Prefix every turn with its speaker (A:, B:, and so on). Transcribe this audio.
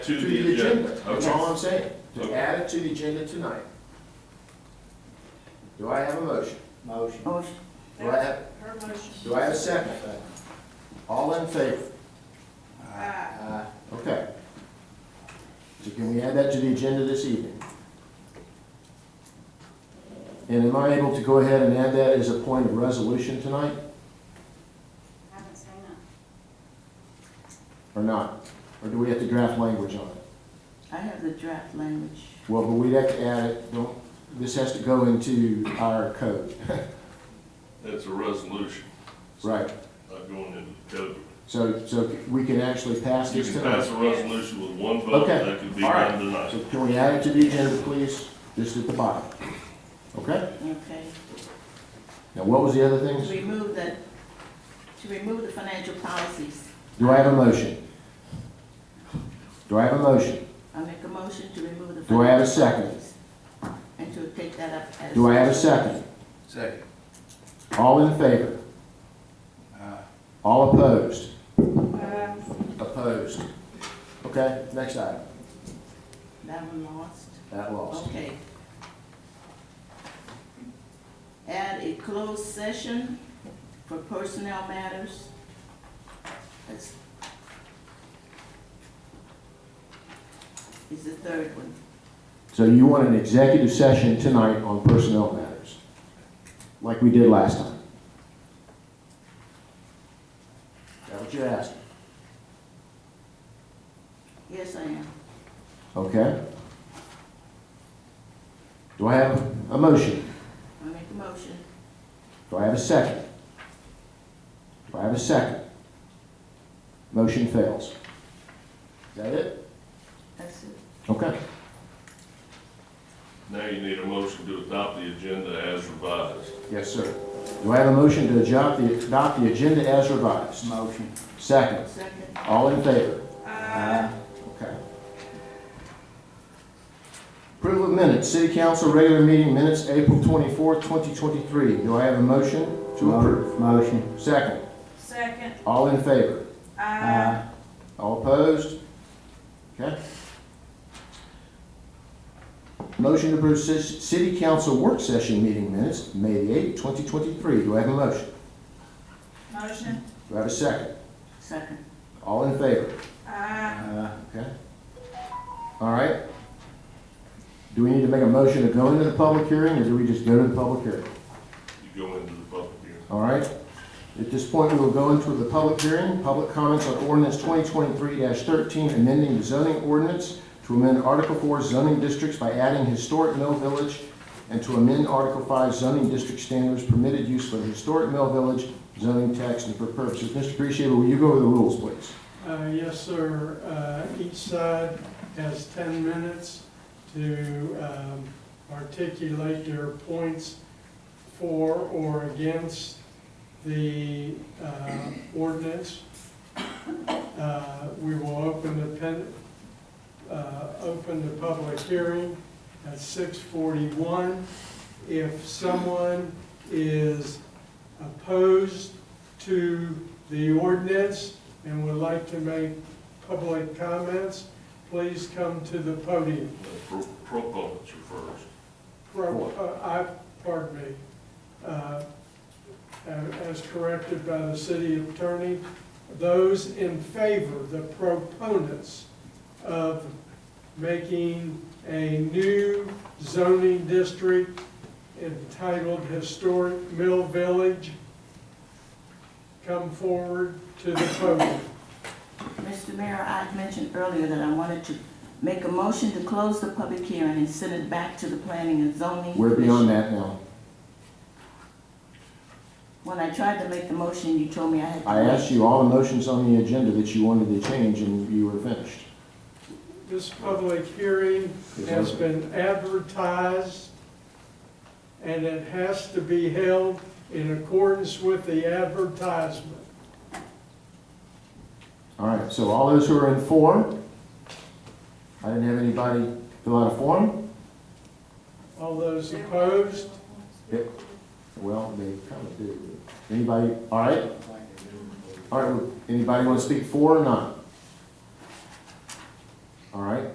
A: To
B: to the agenda, that's all
A: Okay.
B: I'm saying, to
A: Okay.
B: add it to the agenda tonight. Do I have a motion?
C: Motion.
D: Motion.
B: Do I have,
E: Her motion.
B: do I have a second? All in favor?
E: Aye.
B: Aye. Okay. So can we add that to the agenda this evening? And am I able to go ahead and add that as a point of resolution tonight,
E: Haven't seen it.
B: or not? Or do we have to draft language on it?
D: I have the draft language.
B: Well, but we'd have to add it, don't, this has to go into our code.
A: That's a resolution.
B: Right.
A: Not going into the code.
B: So, so we can actually pass
A: You
B: this
A: can pass
B: tonight?
A: a resolution with one vote,
B: Okay.
A: that could be
B: All right.
A: done
B: So
A: tonight.
B: can we add it to the agenda, please? Just at the bottom. Okay?
D: Okay.
B: Now, what was the other
D: To
B: things?
D: remove the, to remove the financial policies.
B: Do I have a motion? Do I have a motion?
D: I make a motion to remove the.
B: Do I have a
D: financial
B: second?
D: policies And to take that up as.
B: Do I have a second?
C: Second.
B: All in favor? All opposed?
E: Um,
B: Opposed. Okay, next item.
D: That one lost.
B: That lost.
D: Okay. Add a closed session for personnel matters. That's. Is the third one.
B: So you want an executive session tonight on personnel matters, like we did last time? Is that what you asked?
D: Yes, I am.
B: Okay. Do I have a motion?
D: I make a motion.
B: Do I have a second? Do I have a second? Motion fails. Is that it?
D: That's it.
B: Okay.
A: Now you need a motion to adopt the agenda as revised.
B: Yes, sir. Do I have a motion to adopt the, adopt the agenda as revised?
C: Motion.
B: Second.
D: Second.
B: All in favor?
E: uh,
B: Okay. Approval of minutes, city council regular meeting minutes, April twenty-fourth, twenty twenty-three. Do I have a motion to approve?
F: Uh,
C: Motion.
B: Second,
E: second,
B: all in favor?
E: uh,
B: All opposed? Okay. Motion to approve ci- city council work session meeting minutes, May the eighth, twenty twenty-three. Do I have a motion?
E: motion,
B: Do I have a second?
D: Second.
B: All in favor?
E: uh,
B: Okay. All right. Do we need to make a motion to go into the public hearing, or do we just go to the public hearing?
A: You go into the public hearing.
B: All right. At this point, we will go into the public hearing, public comments on ordinance twenty twenty-three thirteen, amending the zoning ordinance to amend Article Four zoning districts by adding historic mill village and to amend Article Five zoning district standards permitted use for the historic mill village zoning tax and for purposes. Mr. Appreciator, will you go over the rules, please?
F: Uh, Yes, sir. Uh, Each side has 10 minutes to um, articulate their points for or against the uh, ordinance. Uh, We will open the pen, uh, open the public hearing at 6:41. If someone is opposed to the ordinance, and would like to make public comments, please come to the podium.
A: Pro- Proponents are first.
F: Pro- uh, I, pardon me, uh, a- as corrected by the city attorney, those in favor, the proponents of making a new zoning district entitled Historic Mill Village, come forward to the podium.
D: Mr. Mayor, I had mentioned earlier that I wanted to make a motion to close the public hearing and send it back to the planning and zoning.
B: We're
D: commission.
B: beyond that now.
D: When I tried to make the motion, you told me I had to.
B: I
D: wait.
B: asked you all the motions on the agenda that you wanted to change, and you were finished.
F: This public hearing has been advertised, and it has to be held in accordance with the advertisement.
B: All right, so all those who are in form, I didn't have anybody fill out a form.
F: All those opposed,
B: Well, they kind of do. Anybody, all right? All right, anybody want to speak for or not? All right,